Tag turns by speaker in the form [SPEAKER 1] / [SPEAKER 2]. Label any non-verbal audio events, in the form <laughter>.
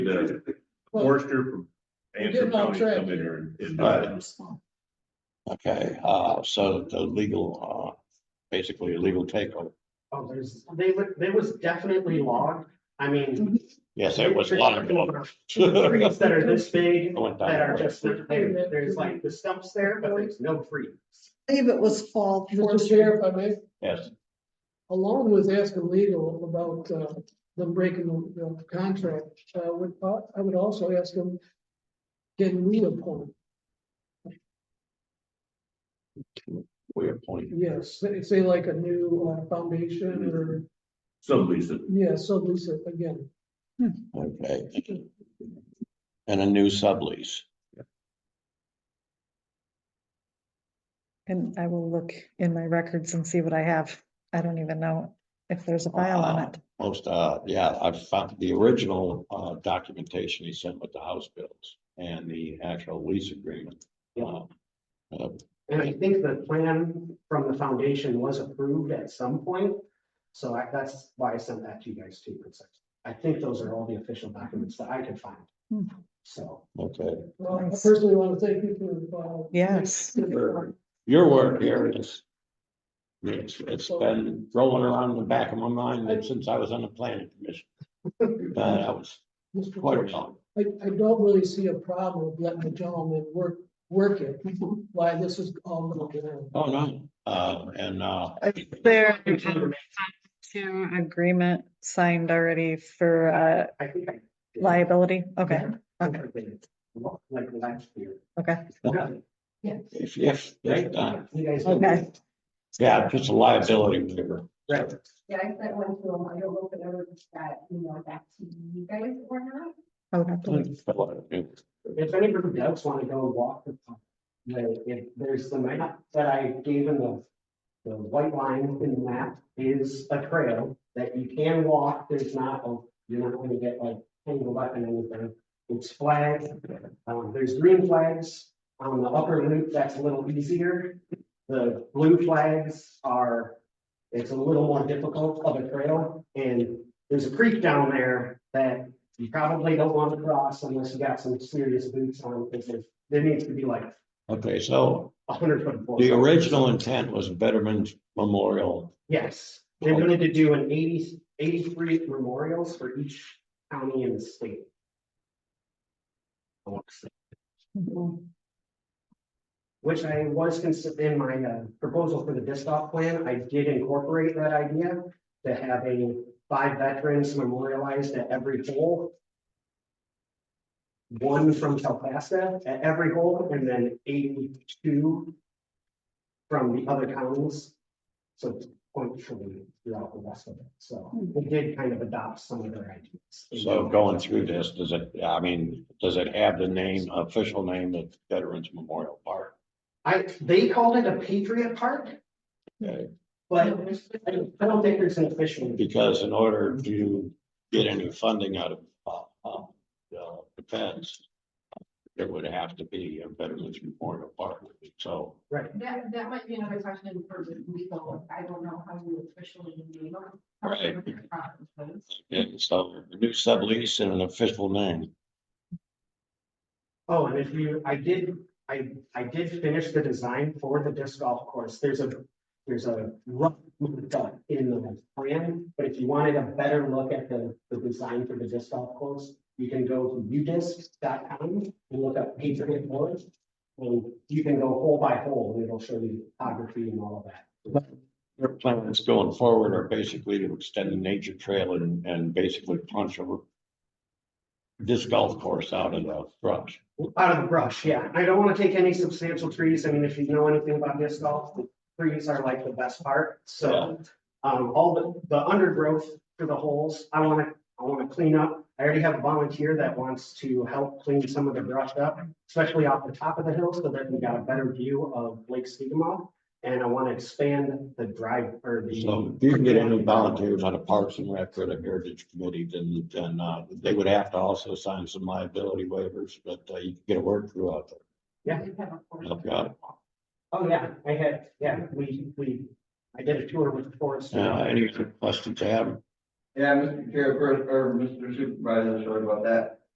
[SPEAKER 1] the
[SPEAKER 2] Well,
[SPEAKER 1] forester from
[SPEAKER 2] we did
[SPEAKER 1] Antrim
[SPEAKER 2] not
[SPEAKER 1] County to come
[SPEAKER 2] track
[SPEAKER 1] in here and- and.
[SPEAKER 3] Right.
[SPEAKER 1] uh,
[SPEAKER 3] Okay, uh, so the legal, uh, basically a legal takeover.
[SPEAKER 4] Oh, there's, they, were- there was definitely logged, I mean.
[SPEAKER 5] Mhm.
[SPEAKER 3] Yes, there was a
[SPEAKER 4] you're
[SPEAKER 3] lot of.
[SPEAKER 4] talking
[SPEAKER 3] <laughs>
[SPEAKER 4] about Trees that are this big,
[SPEAKER 3] I went down
[SPEAKER 4] that are
[SPEAKER 3] there.
[SPEAKER 4] just, there, there's like the stumps there, but there's no trees.
[SPEAKER 6] believe it was fall.
[SPEAKER 2] Mr. Chair, if I may,
[SPEAKER 3] Yes,
[SPEAKER 2] along with asking legal about uh, them breaking the the contract, uh, would, I would also ask them, can we appoint?
[SPEAKER 3] we appointed.
[SPEAKER 2] Yes, say- say like a new uh, foundation or,
[SPEAKER 1] Some Lisa,
[SPEAKER 2] yeah, so Lisa, again,
[SPEAKER 3] Okay. And a new sublease.
[SPEAKER 5] And I will look in my records and see what I have. I don't even know if there's a file on
[SPEAKER 3] Wow.
[SPEAKER 5] it.
[SPEAKER 3] Most, uh, yeah, I found the original, uh, documentation he sent with the house bills and the actual lease agreement. Uh, uh,
[SPEAKER 4] And I think the plan from the foundation was approved at some point. So I, that's why I sent that to you guys too. It's like, I think those are all the official documents that I could find.
[SPEAKER 5] Hmm.
[SPEAKER 4] So,
[SPEAKER 3] Okay,
[SPEAKER 2] well, I
[SPEAKER 5] Nice.
[SPEAKER 2] personally want to thank you for. uh,
[SPEAKER 5] Yes.
[SPEAKER 3] your word here is. It's, it's been rolling around in the back of my mind since I was on the planning commission. Uh, that was
[SPEAKER 2] Mr.
[SPEAKER 3] quite a
[SPEAKER 2] Chair.
[SPEAKER 3] while.
[SPEAKER 2] I, I don't really see a problem with letting the gentleman work, work it,
[SPEAKER 5] Mm-hmm.
[SPEAKER 2] why this is all going on.
[SPEAKER 3] Oh, no, uh, and, uh,
[SPEAKER 5] Is There two agreement signed already for uh
[SPEAKER 4] I think I. did.
[SPEAKER 5] liability. Okay,
[SPEAKER 4] I
[SPEAKER 5] okay,
[SPEAKER 4] did. Like last year.
[SPEAKER 5] okay.
[SPEAKER 3] if, if, if, uh,
[SPEAKER 4] You guys.
[SPEAKER 5] Okay.
[SPEAKER 3] yeah, just a liability waiver.
[SPEAKER 4] Right.
[SPEAKER 7] Yeah, I sent one to them. I don't know if it ever got, you know, back to you guys or not.
[SPEAKER 5] I would have to look.
[SPEAKER 4] If anybody does want to go walk the park, the- if there's the map that I gave in the. The white line in the map is a trail that you can walk, there's not, a- you're not gonna get like tangled up in anything. It's flagged, um, there's green flags on the upper loop, that's a little easier. The blue flags are, it's a little more difficult of a trail, and there's a creek down there that you probably don't want to cross unless you got some serious boots on, because there, there needs to be like
[SPEAKER 3] Okay, so
[SPEAKER 4] a hundred foot. force.
[SPEAKER 3] the original intent was Betterman's Memorial.
[SPEAKER 4] Yes, they wanted to do an 80 83 memorials for each county in the state. I want to say.
[SPEAKER 5] Mm-hmm.
[SPEAKER 4] Which I was considering in my uh, proposal for the disc off plan, I did incorporate that idea to have a five veterans memorialized at every hole. One from Telpasta at every hole and then eighty-two from the other counties. So it's functionally throughout the rest of it. So we did kind of adopt some of their ideas.
[SPEAKER 3] So going through this, does it, I mean, does it have the name, official name of Veterans Memorial Park?
[SPEAKER 4] I, they called it a Patriot Park.
[SPEAKER 3] Okay.
[SPEAKER 4] But I don't- I don't think there's an official.
[SPEAKER 3] Because in order to get any funding out of, uh, uh, the defense, it would have to be a Veterans Memorial Park. So
[SPEAKER 7] That, that might be another question for legal. I don't know how you officially name them.
[SPEAKER 3] Right. And so new sublease and an official name.
[SPEAKER 4] Oh, and if you, I did, I, I did finish the design for the disc golf course. There's a, there's a rough cut in the plan. But if you wanted a better look at the, the design for the disc golf course, you can go to udisc.com and look up Patriot Forest. And you can go hole by hole and it'll show you topography and all of that.
[SPEAKER 3] Their plans going forward are basically to extend the nature trail and, and basically punch a this golf course out of the brush.
[SPEAKER 4] Out of the brush, yeah. I don't want to take any substantial trees. I mean, if you know anything about disc golf, the trees are like the best part, so. Um, all the, the undergrowth for the holes, I want to, I want to clean up. I already have a volunteer that wants to help clean some of the brush up, especially off the top of the hill, so that we got a better view of Lake Skidmore. And I want to expand the drive or the.
[SPEAKER 3] So if you can get any volunteers on the Parks and Rec or the Heritage Committee, then, then, uh, they would have to also sign some liability waivers, but, uh, you can get a word through out there. Okay.
[SPEAKER 4] Oh, yeah, I had, yeah, we, we, I did a tour with the forest.
[SPEAKER 3] Uh, any other questions to have?
[SPEAKER 8] Yeah, Mr. Chair, first, or Mr. Supervisor, sorry about that.